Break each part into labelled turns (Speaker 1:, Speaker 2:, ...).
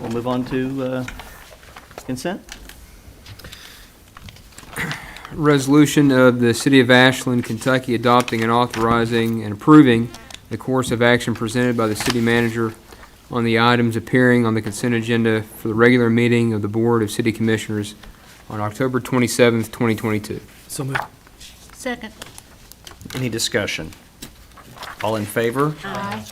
Speaker 1: We'll move on to uh, consent.
Speaker 2: Resolution of the City of Ashland, Kentucky adopting and authorizing and approving the course of action presented by the city manager on the items appearing on the consent agenda for the regular meeting of the Board of City Commissioners on October 27th, 2022.
Speaker 3: So moved.
Speaker 4: Second.
Speaker 1: Any discussion? All in favor?
Speaker 4: Aye.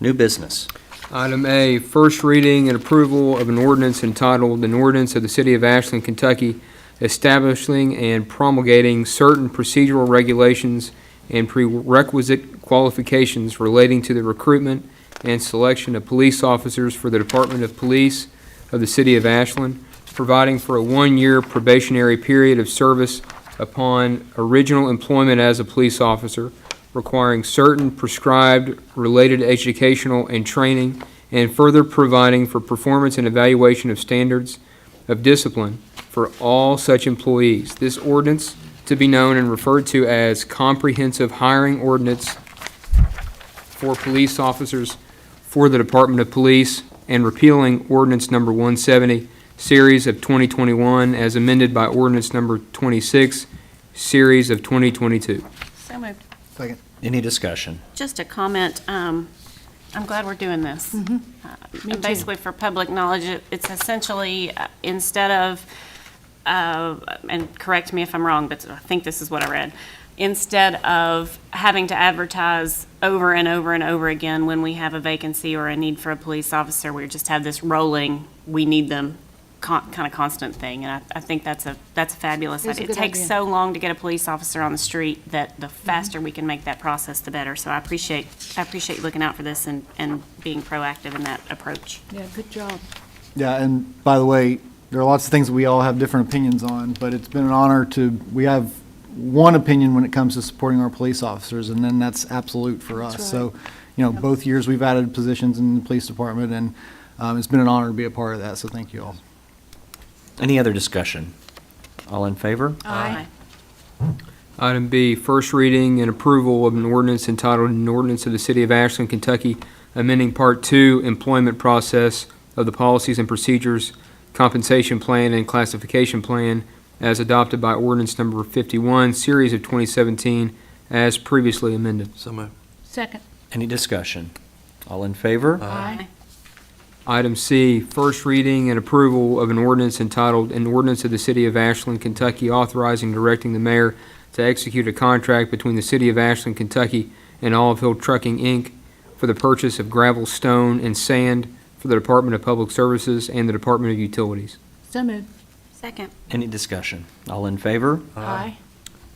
Speaker 1: New business.
Speaker 2: Item A, first reading and approval of an ordinance entitled, "An Ordinance of the City of Ashland, Kentucky Establishing and Promulgating Certain Procedural Regulations and Prerequisite Qualifications Relating to the Recruitment and Selection of Police Officers for the Department of Police of the City of Ashland, Providing for a One-Year Probationary Period of Service Upon Original Employment as a Police Officer, requiring certain prescribed related educational and training, and further providing for performance and evaluation of standards of discipline for all such employees. This ordinance to be known and referred to as Comprehensive Hiring Ordinance for Police Officers for the Department of Police and repealing ordinance number 170, series of 2021, as amended by ordinance number 26, series of 2022.
Speaker 4: So moved.
Speaker 1: Any discussion?
Speaker 5: Just a comment, um, I'm glad we're doing this. Uh, And basically, for public knowledge, it- it's essentially, uh, instead of, uh, and correct me if I'm wrong, but I think this is what I read, instead of having to advertise over and over and over again when we have a vacancy or a need for a police officer, we just have this rolling, we need them, kind of constant thing, and I, I think that's a, that's a
Speaker 4: It's
Speaker 5: fabulous
Speaker 4: a
Speaker 5: idea. It
Speaker 4: good
Speaker 5: takes
Speaker 4: idea. Mm-hmm.
Speaker 5: so long to get a police officer on the street that the faster we can make that process, the better. So I appreciate, I appreciate looking out for this and, and being proactive in that approach.
Speaker 4: Yeah, good job.
Speaker 6: Yeah, and by the way, there are lots of things we all have different opinions on, but it's been an honor to, we have one opinion when it comes to supporting our police officers, and then that's absolute for us. So, you know, both years we've added positions in the police department, and um, it's been an honor to be a part of that, so thank you all.
Speaker 1: Any other discussion? All in favor?
Speaker 4: Aye.
Speaker 2: Item B, first reading and approval of an ordinance entitled An Ordinance of the City of Ashland, Kentucky, amending Part Two Employment Process of the Policies and Procedures, Compensation Plan and Classification Plan as adopted by ordinance number 51, series of 2017, as previously amended.
Speaker 3: So moved.
Speaker 4: Second.
Speaker 1: Any discussion? All in favor?
Speaker 4: Aye.
Speaker 2: Item C, first reading and approval of an ordinance entitled, An Ordinance of the City of Ashland, Kentucky authorizing and directing the mayor to execute a contract between the City of Ashland, Kentucky and Olive Hill Trucking, Inc. for the purchase of gravel, stone, and sand for the Department of Public Services and the Department of Utilities.
Speaker 4: So moved.
Speaker 5: Second.
Speaker 1: Any discussion? All in favor?
Speaker 4: Aye.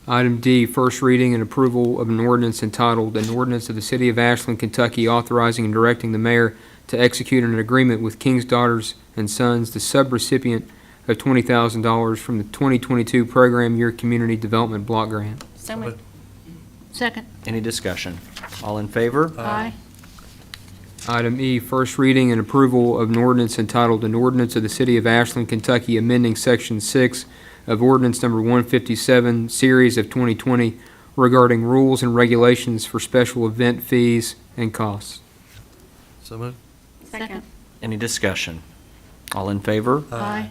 Speaker 2: Item D, first reading and approval of an ordinance entitled, An Ordinance of the City of Ashland, Kentucky authorizing and directing the mayor to execute an agreement with King's Daughters and Sons, the subrecipient of $20,000 from the 2022 Program Year Community Development Block Grant.
Speaker 5: So moved.
Speaker 4: Second.
Speaker 1: Any discussion? All in favor?
Speaker 4: Aye.
Speaker 2: Item E, first reading and approval of an ordinance entitled, An Ordinance of the City of Ashland, Kentucky amending Section 6 of Ordinance Number 157, Series of 2020 regarding rules and regulations for special event fees and costs.
Speaker 3: So moved.
Speaker 4: Second.
Speaker 1: Any discussion? All in favor?
Speaker 4: Aye.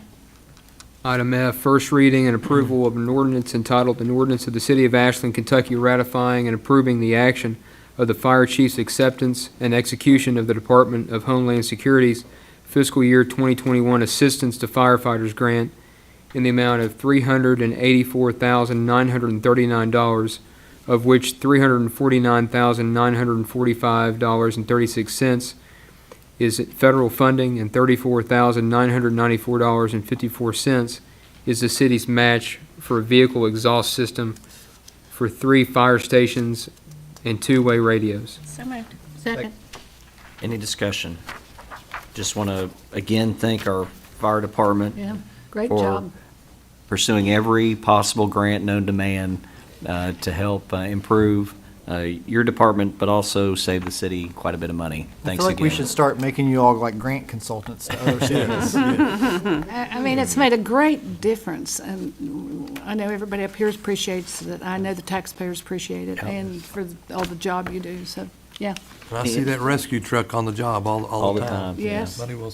Speaker 2: Item F, first reading and approval of an ordinance entitled, an ordinance of the City of Ashland, Kentucky ratifying and approving the action of the fire chief's acceptance and execution of the Department of Homeland Security's fiscal year 2021 Assistance to Firefighters Grant in the amount of $384,939, of which $349,945.36 is it federal funding, and thirty-four thousand nine hundred ninety-four dollars and fifty-four cents is the city's match for a vehicle exhaust system for three fire stations and two-way radios.
Speaker 5: So moved.
Speaker 4: Second.
Speaker 1: Any discussion? Just want to, again, thank our fire department
Speaker 4: Yeah, great
Speaker 1: Or-
Speaker 4: job.
Speaker 1: pursuing every possible grant known to man uh, to help uh, improve uh, your department, but also save the city quite a bit of money. Thanks
Speaker 6: I feel like we
Speaker 1: again.
Speaker 6: should start making you all like grant consultants to other cities.
Speaker 7: I I mean, it's made a great difference, and I know everybody up here appreciates it. I know the taxpayers appreciate it, and for all the job you do, so, yeah.
Speaker 3: And I see that rescue truck on the job all, all the time.
Speaker 1: yeah.
Speaker 7: Yes.
Speaker 3: Buddy will